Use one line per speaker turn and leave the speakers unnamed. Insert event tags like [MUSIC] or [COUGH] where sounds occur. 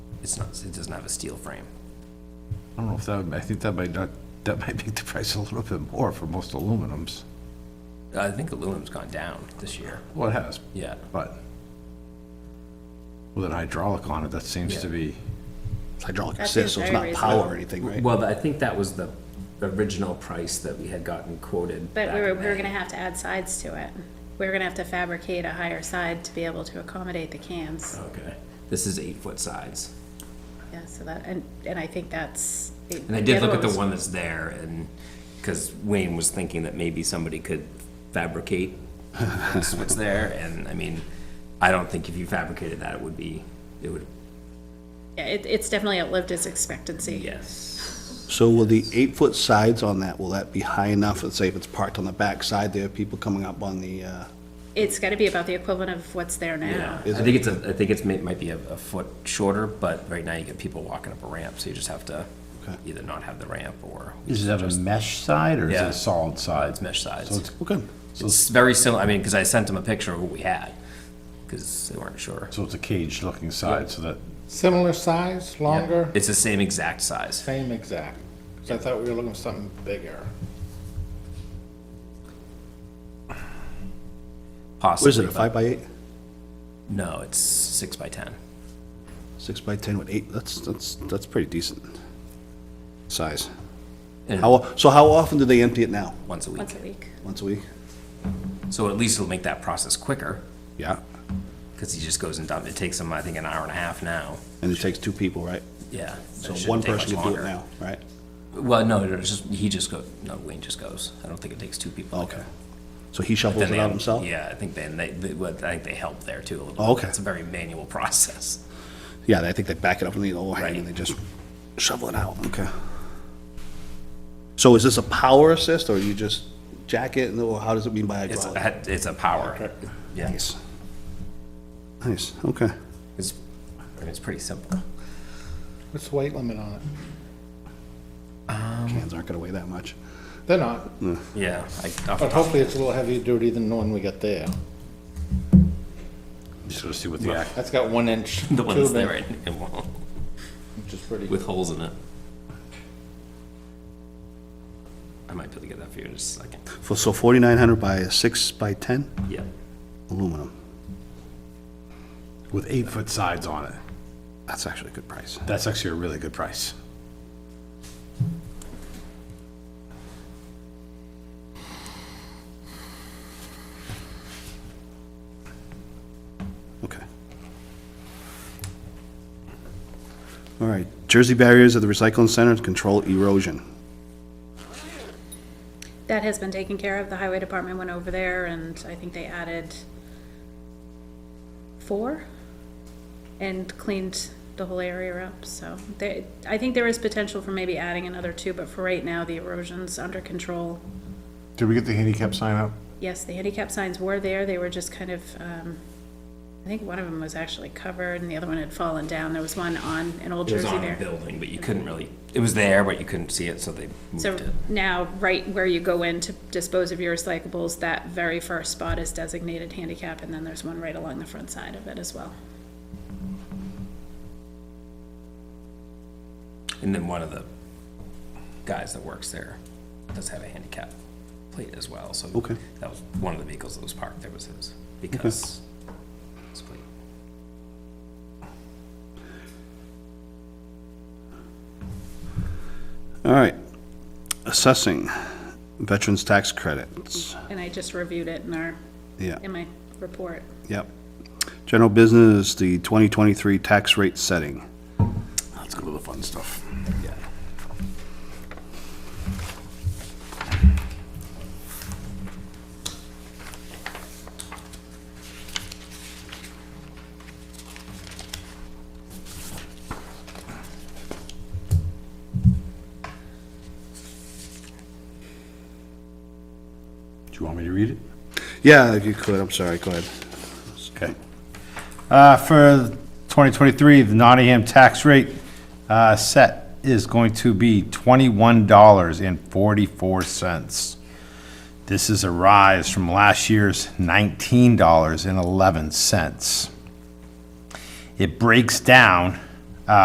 it's not, it doesn't have a steel frame.
I don't know if that, would- I think that might not, that might make the price a little bit more for most aluminums.
I think aluminum's gone down this year.
Well, it has,
Yeah.
but with an hydraulic on it, that seems to be,
hydraulic
That
assist, so
seems
it's not
very
power or
reasonable.
anything, right?
Well, I think that was the original price that we had gotten quoted.
But
back
we were,
in
we were
May.
gonna have to add sides to it. We were gonna have to fabricate a higher side to be able to accommodate the cans.
Okay, this is eight-foot sides.
Yeah, so that, and, and I think that's.
And I did look at the one that's there and, because Wayne was thinking that maybe somebody could fabricate what's what's there, and I mean, I don't think if you fabricated that, it would be, it would,
Yeah, it, it's definitely outlived its expectancy.
yes.
So will the eight-foot sides on that, will that be high enough, let's say if it's parked on the back side, there are people coming up on the, uh,
It's gotta be about the equivalent of what's there now.
Yeah, I think it's a, I think it's, may- might be a, a foot shorter, but right now you get people walking up a ramp, so you just have to
Okay.
either not have the ramp or
is that a mesh side or is it
Yeah.
a solid side?
mesh sides.
So it's-
well, good.
It's very similar, I mean, because I sent them a picture of what we had, because they weren't sure.
So it's a caged looking side, so that,
Similar size, longer,
It's the same exact size.
same exact. So I thought we were looking for something bigger.
What is
Possibly.
it, a five by eight?
No, it's six by ten.
Six by 10 with eight, that's, that's, that's pretty decent size.
And
How, so how often do they empty it now?
once a week.
Once a week.
Once a week?
So at least it'll make that process quicker,
Yeah.
because he just goes and dump, it takes him, I think, an hour and a half now.
And it takes two people, right?
Yeah.
So one person can do it now, right?
Well, no, it's just, he just go, no, Wayne just goes. I don't think it takes two people. to
Okay.
go.
So he shovels
Then
it
they
out
have-
himself?
Yeah, I think then they, they, well, I think they help there too. a little
Oh,
bit.
okay.
It's a very manual process.
Yeah, I think they back it up in the overhang
Right.
and they just shovel it out, okay. So is this a power assist or you just jack it, or how does it mean by
It's,
hydraulic?
a- it's a power. Yeah,
Nice. Nice, okay.
it's, I mean, it's pretty
[LAUGHS]
simple.
What's the weight limit on it?
Cans aren't gonna weigh that much.
They're not,
Yeah, I,
but hopefully it's a little heavier duty than the one we got there.
just gotta see what the, act-
That's got one inch
the ones there,
tubing,
right, it won't-
which is pretty.
with holes in it. I might be able to get that for you in just a second.
For, so forty-nine hundred by a six by ten
Yeah.
aluminum,
with eight foot sides on it,
that's actually a good price.
that's actually a really good price.
Okay. All right, Jersey barriers at the recycling center to control erosion.
That has been taken care of. The highway department went over there and I think they added four and cleaned the whole area up, so they, I think there is potential for maybe adding another two, but for right now, the erosion's under control.
Did we get the handicap sign up?
Yes, the handicap signs were there. They were just kind of, um, I think one of them was actually covered and the other one had fallen down. There was one on an old
It was
Jersey
on a
there.
building, but you couldn't really, it was there, but you couldn't see it, so they moved
So
it.
now, right where you go in to dispose of your recyclables, that very first spot is designated handicap and then there's one right along the front side of it as well.
And then one of the guys that works there does have a handicap plate as well, so.
Okay.
That was one of the vehicles that was parked there was his, because his plate.
All right, assessing veterans tax credits,
And I just reviewed it in our,
yeah.
in my report.
Yep. General business, the 2023 tax rate setting. Let's go to the fun stuff.
Yeah.
Do you want me to read it?
Yeah, if you could, I'm sorry, go ahead.
Okay. Uh, For 2023, the Nottingham tax rate uh, set is going to be $21.44. This is a rise from last year's $19.11. It breaks down uh,